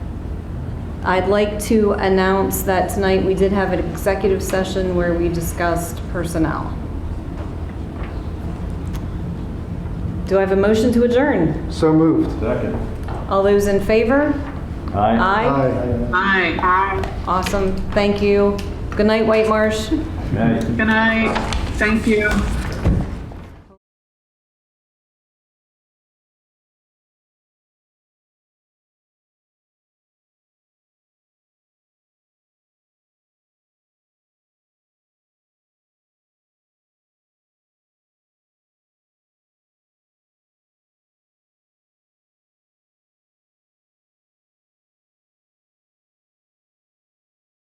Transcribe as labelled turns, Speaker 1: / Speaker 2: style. Speaker 1: I'd like to announce that tonight we did have an executive session where we discussed personnel. Do I have a motion to adjourn?
Speaker 2: So moved.
Speaker 3: Second.
Speaker 1: All those in favor? Aye.
Speaker 2: Aye.
Speaker 4: Aye.
Speaker 1: Awesome, thank you. Good night, White Marsh.
Speaker 3: Aye.
Speaker 4: Good night. Thank you.